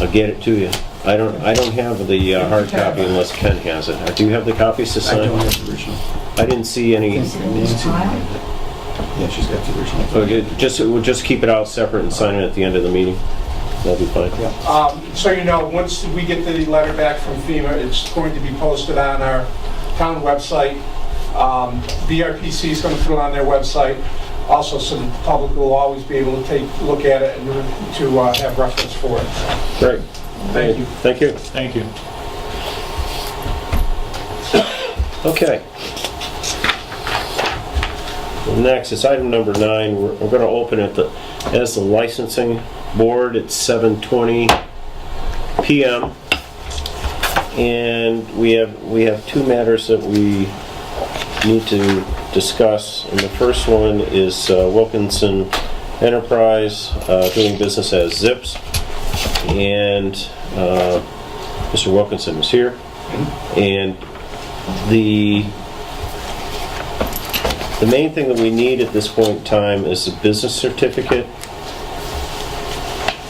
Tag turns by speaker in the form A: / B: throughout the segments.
A: I'll get it to you. I don't, I don't have the uh, hard copy unless Ken has it. Uh, Do you have the copies to
B: I don't
A: sign?
B: have the original.
A: I didn't see any,
C: Is it in the file?
B: Yeah, she's got the original.
A: okay, just, we'll just keep it out separate and sign it at the end of the meeting. That'll be fine.
D: Um, So you know, once we get the letter back from FEMA, it's going to be posted on our town website. Um, BRPC is going to put it on their website, also so that the public will always be able to take, look at it and to uh, have reference for it.
A: Great.
D: Thank you.
A: Thank you.
E: Thank you.
A: Okay. Next, it's item number nine. We're we're gonna open it the- as the licensing board at 7:20 PM. And we have, we have two matters that we need to discuss. And the first one is uh, Wilkinson Enterprise uh, doing business as Zips. And uh, Mr. Wilkinson is here. And the, the main thing that we need at this point in time is a business certificate.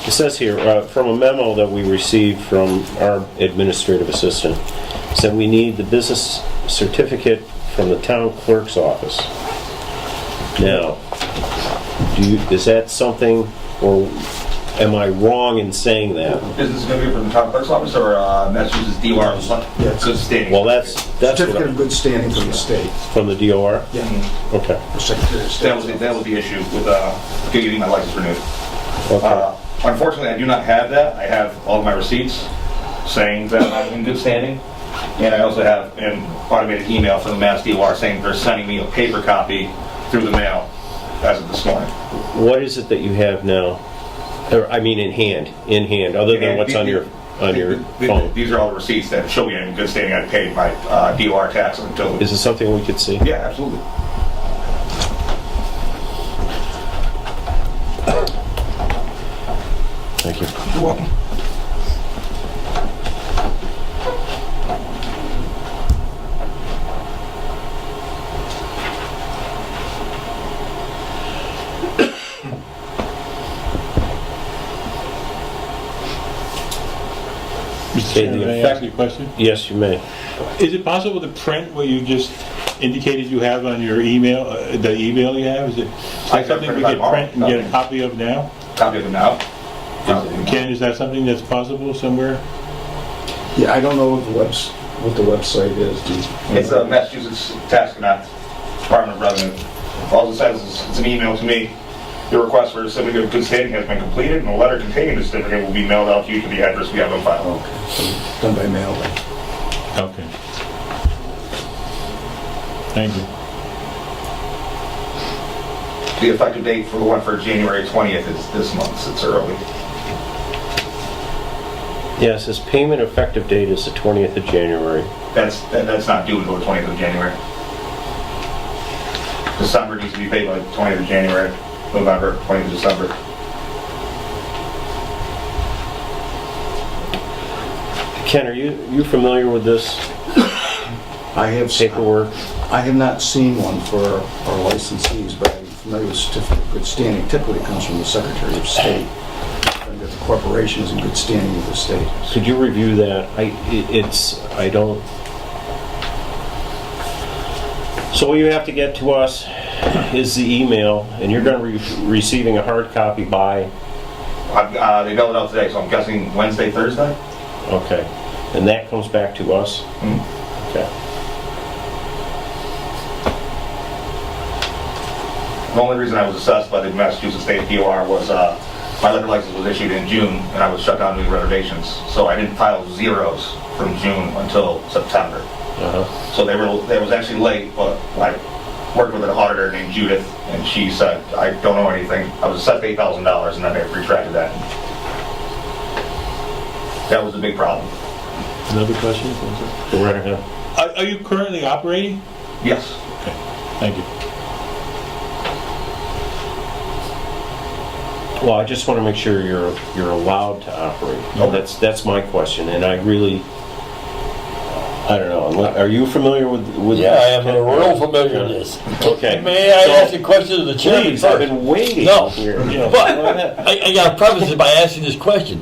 A: It says here, uh, from a memo that we received from our administrative assistant, said we need the business certificate from the town clerk's office. Now, do you, is that something, or am I wrong in saying that?
F: Business going to be from the town clerk's office or uh, Massachusetts DOR? Yeah. So stating.
A: Well, that's, that's what
B: Certificate of
A: I-
B: good standing from the state.
A: from the DOR?
B: Yeah,
A: Okay.
B: the Secretary of
F: That was, the-
B: State.
F: that was the issue with uh, getting my license renewed.
A: Okay.
F: Uh, Unfortunately, I do not have that. I have all of my receipts saying that I'm in good standing. And I also have an automated email from the Mass DOR saying they're sending me a paper copy through the mail as of this morning.
A: What is it that you have now? Or, I mean, in hand, in hand, other than what's on your, on your phone?
F: These are all the receipts that show me I'm in good standing. I paid my uh, DOR tax until,
A: Is this something we could see?
F: yeah, absolutely.
A: Thank you.
B: You're welcome.
E: Mr.
A: Okay,
E: Chairman,
A: the
E: may I
A: effect-
E: ask you a question?
A: Yes, you may.
E: Is it possible to print what you just indicated you have on your email, uh, the email you have? Is it is
F: I
E: that
F: can
E: something we
F: print it
E: could
F: out.
E: print and get a copy of now?
F: Copy of it now. Uh,
E: Ken, is that something that's possible somewhere?
B: Yeah, I don't know what the webs, what the website is. Do you-
F: It's a Massachusetts Tax Connect, Department of Revenue. All it says is, it's an email to me. Your request for a certificate of good standing has been completed, and a letter containing the certificate will be mailed out to you to the address we have on file.
B: Done by mail. then.
E: Okay. Thank you.
F: The effective date for the one for January 20th is this month, so it's early.
A: Yes, his payment effective date is the 20th of January.
F: That's, that- that's not due until the 20th of January. December needs to be paid by the 20th of January, November, 20th of December.
A: Ken, are you, you familiar with this
B: I have,
A: paperwork?
B: I have not seen one for our licensees, but I'm familiar with certificate of good standing. Typically, it comes from the Secretary of State. And that the corporation is in good standing with the state.
A: Could you review that? I, i- it's, I don't... So what you have to get to us is the email, and you're gonna be receiving a hard copy by
F: I've- uh, They mailed it out today, so I'm guessing Wednesday, Thursday?
A: Okay, and that comes back to us?
F: Mm.
G: Hmm.
A: Okay,
F: The only reason I was assessed by the Massachusetts State DOR was, uh, my liquor license was issued in June, and I was shut down doing reservations, so I didn't file zeros from June until September.
A: uh-huh,
F: So they were, they was actually late, but I worked with an auditor named Judith, and she said, I don't know anything. I was assessed eight thousand dollars, and then they retracted that. That was a big problem.
E: Another question?
A: go right ahead.
E: Are are you currently operating?
F: Yes.
E: Thank you.
A: Well, I just want to make sure you're, you're allowed to operate.
F: Okay.
A: That's, that's my question, and I really, I don't know, are you familiar with? with-
G: Yeah, I am real familiar with this.
A: Okay.
G: May I
A: So-
G: ask a question of the chairman
A: Please, I've
G: first?
A: been waiting
G: No.
A: here. Yeah.
G: But, I, I gotta preface it by asking this question.